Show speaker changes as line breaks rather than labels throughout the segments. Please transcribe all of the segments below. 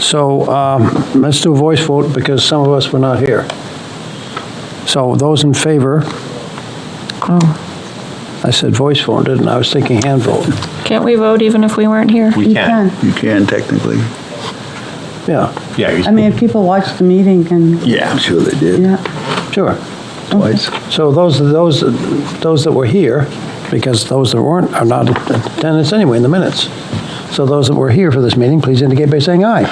So um, let's do a voice vote because some of us were not here. So those in favor, I said voice vote, didn't I? I was thinking hand vote.
Can't we vote even if we weren't here?
We
You
can.
can.
You can technically.
Yeah,
Yeah,
I mean, if people watch the meeting and,
I'm
yeah.
sure they did
yeah,
sure.
twice.
So those, those, those that were here, because those that weren't are not in attendance anyway in the minutes. So those that were here for this meeting, please indicate by saying aye.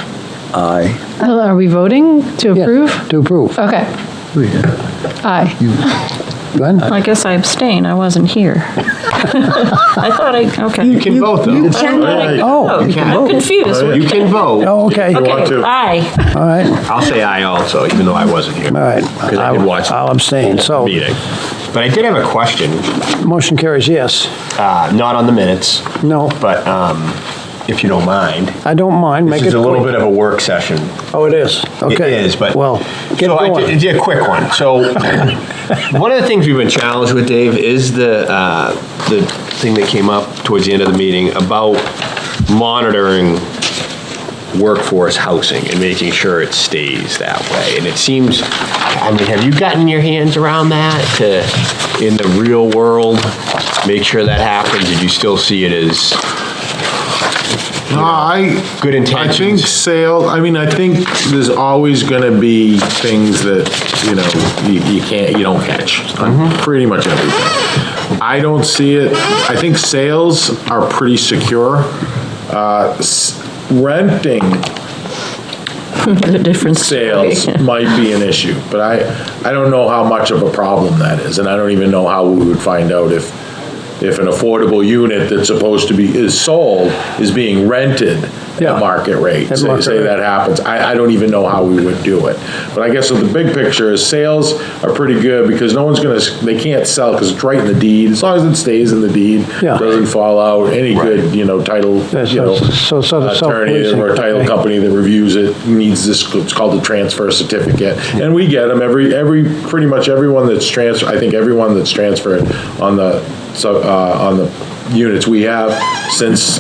Aye.
Hello, Are we voting to
Yeah,
approve?
To approve.
Okay,
oh,
aye.
Glenn?
I guess I abstain, I wasn't here. I thought I, okay.
You can vote, though.
I don't know that I could
Oh,
vote.
you can
I'm
vote.
confused.
You can vote.
Oh, okay, all
Okay,
to.
aye.
right,
I'll say aye also, even though I wasn't here.
all right.
Because I could watch
I'll
the
abstain, so
meeting. But I did have a question,
motion carries yes.
uh, not on the minutes,
No,
but um, if you don't mind.
I don't mind, make
This
it
is a little
quick.
bit of a work session.
Oh, it is,
It
okay.
is, but.
Well, get
So I
going.
did- Yeah, quick one. So, one of the things we've been challenged with, Dave, is the, uh, the thing that came up towards the end of the meeting about monitoring workforce housing and making sure it stays that way. And it seems, I mean, have you gotten your hands around that to, in the real world, make sure that happens? Did you still see it as
No, I.
Good intentions.
I think sale, I mean, I think there's always gonna be things that, you know, you, you can't, you don't catch. on
Mm-hmm.
Pretty much everything. I don't see it, I think sales are pretty secure. Uh, s- renting
The difference.
sales might be an issue, but I, I don't know how much of a problem that is, and I don't even know how we would find out if, if an affordable unit that's supposed to be, is sold, is being rented
Yeah.
at market rate.
At
Say
market
say
rate.
that happens, I, I don't even know how we would do it. But I guess the big picture is sales are pretty good, because no one's gonna, s- they can't sell, because it's right in the deed, as long as it stays in the deed,
Yeah.
doesn't fall out, any good, you know, title,
Yeah,
you know,
so- so sort of
attorney
self-policing.
or title
Okay.
company that reviews it needs this, it's called the transfer certificate. And we get them, every, every, pretty much everyone that's transfer, I think everyone that's transferred on the, sub- uh, on the units we have since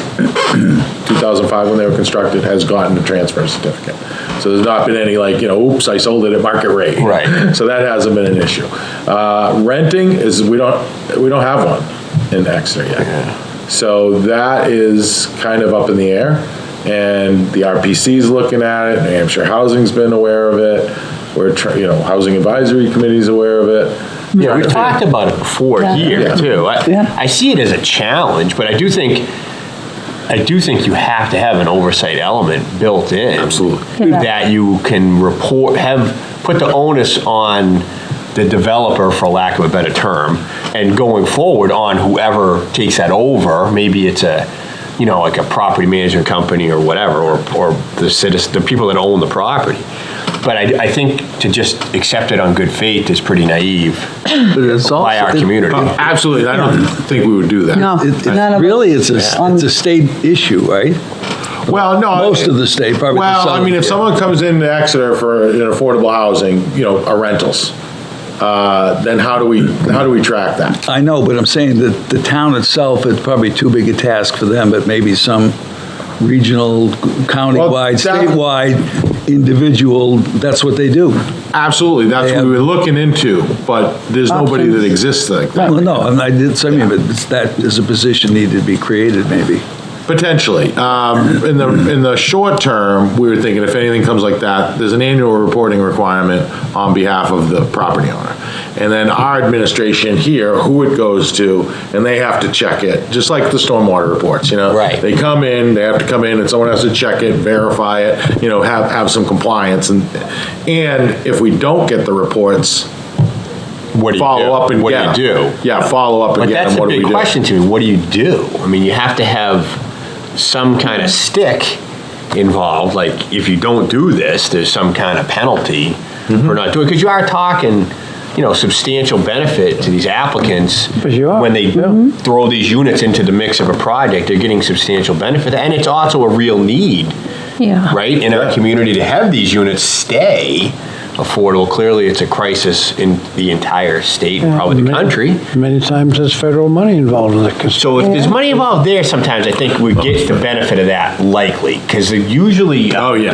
2005, when they were constructed, has gotten a transfer certificate. So there's not been any like, you know, oops, I sold it at market rate.
Right.
So that hasn't been an issue. Uh, Renting is, we don't, we don't have one in Exeter yet. So that is kind of up in the air, and the RPC's looking at it, New Hampshire Housing's been aware of it, we're, tr- you know, Housing Advisory Committee's aware of it.
Yeah, we've talked about it before here,
Yeah.
too. I, I see it as a challenge, but I do think, I do think you have to have an oversight element built in. Absolutely. That you can report, have, put the onus on the developer, for lack of a better term, and going forward on whoever takes that over, maybe it's a, you know, like a property management company or whatever, or, or the citizen, the people that own the property. But I, I think to just accept it on good faith is pretty naive by our community.
Uh, Absolutely, I don't think we would do that.
no.
It-
none
it
of
Really, it's a,
on-
it's a state issue, right?
Well, no.
Most of the state, probably the
Well, I
southern
mean, if
part.
someone comes into Exeter for an affordable housing, you know, are rentals, uh, then how do we, how do we track that?
I know, but I'm saying that the town itself, it's probably too big a task for them, but maybe some regional, countywide,
that-
statewide, individual, that's what they do.
Absolutely, that's what we were looking into, but there's nobody that exists like that,
Well, no, and I did, so I mean, but it's- that is a position needed to be created, maybe.
potentially. Um, In the, in the short term, we were thinking if anything comes like that, there's an annual reporting requirement on behalf of the property owner. And then our administration here, who it goes to, and they have to check it, just like the stormwater reports, you know?
Right.
They they come in, they have to come in, and someone has to check it, verify it, you know, have, have some compliance, and, and if we don't get the reports,
What do you do?
follow up and
What
get
do you
'em.
do?
Yeah, follow up
But
and get
that's
them,
a
what do we do?
big question to me. What do you do? I mean, you have to have some kind of stick involved. Like, if you don't do this, there's some kind of penalty for not doing, because you are talking, you know, substantial benefit to these applicants.
Because you are,
When they
yeah.
throw these units into the mix of a project, they're getting substantial benefit. And it's also a real need
Yeah.
right, in our community to have these units stay affordable. Clearly, it's a crisis in the entire state and probably the
Many-
country.
Many times there's federal money involved in the construction.
So if there's money involved there, sometimes I think we get the benefit of that likely, because usually. uh,
Oh, yeah.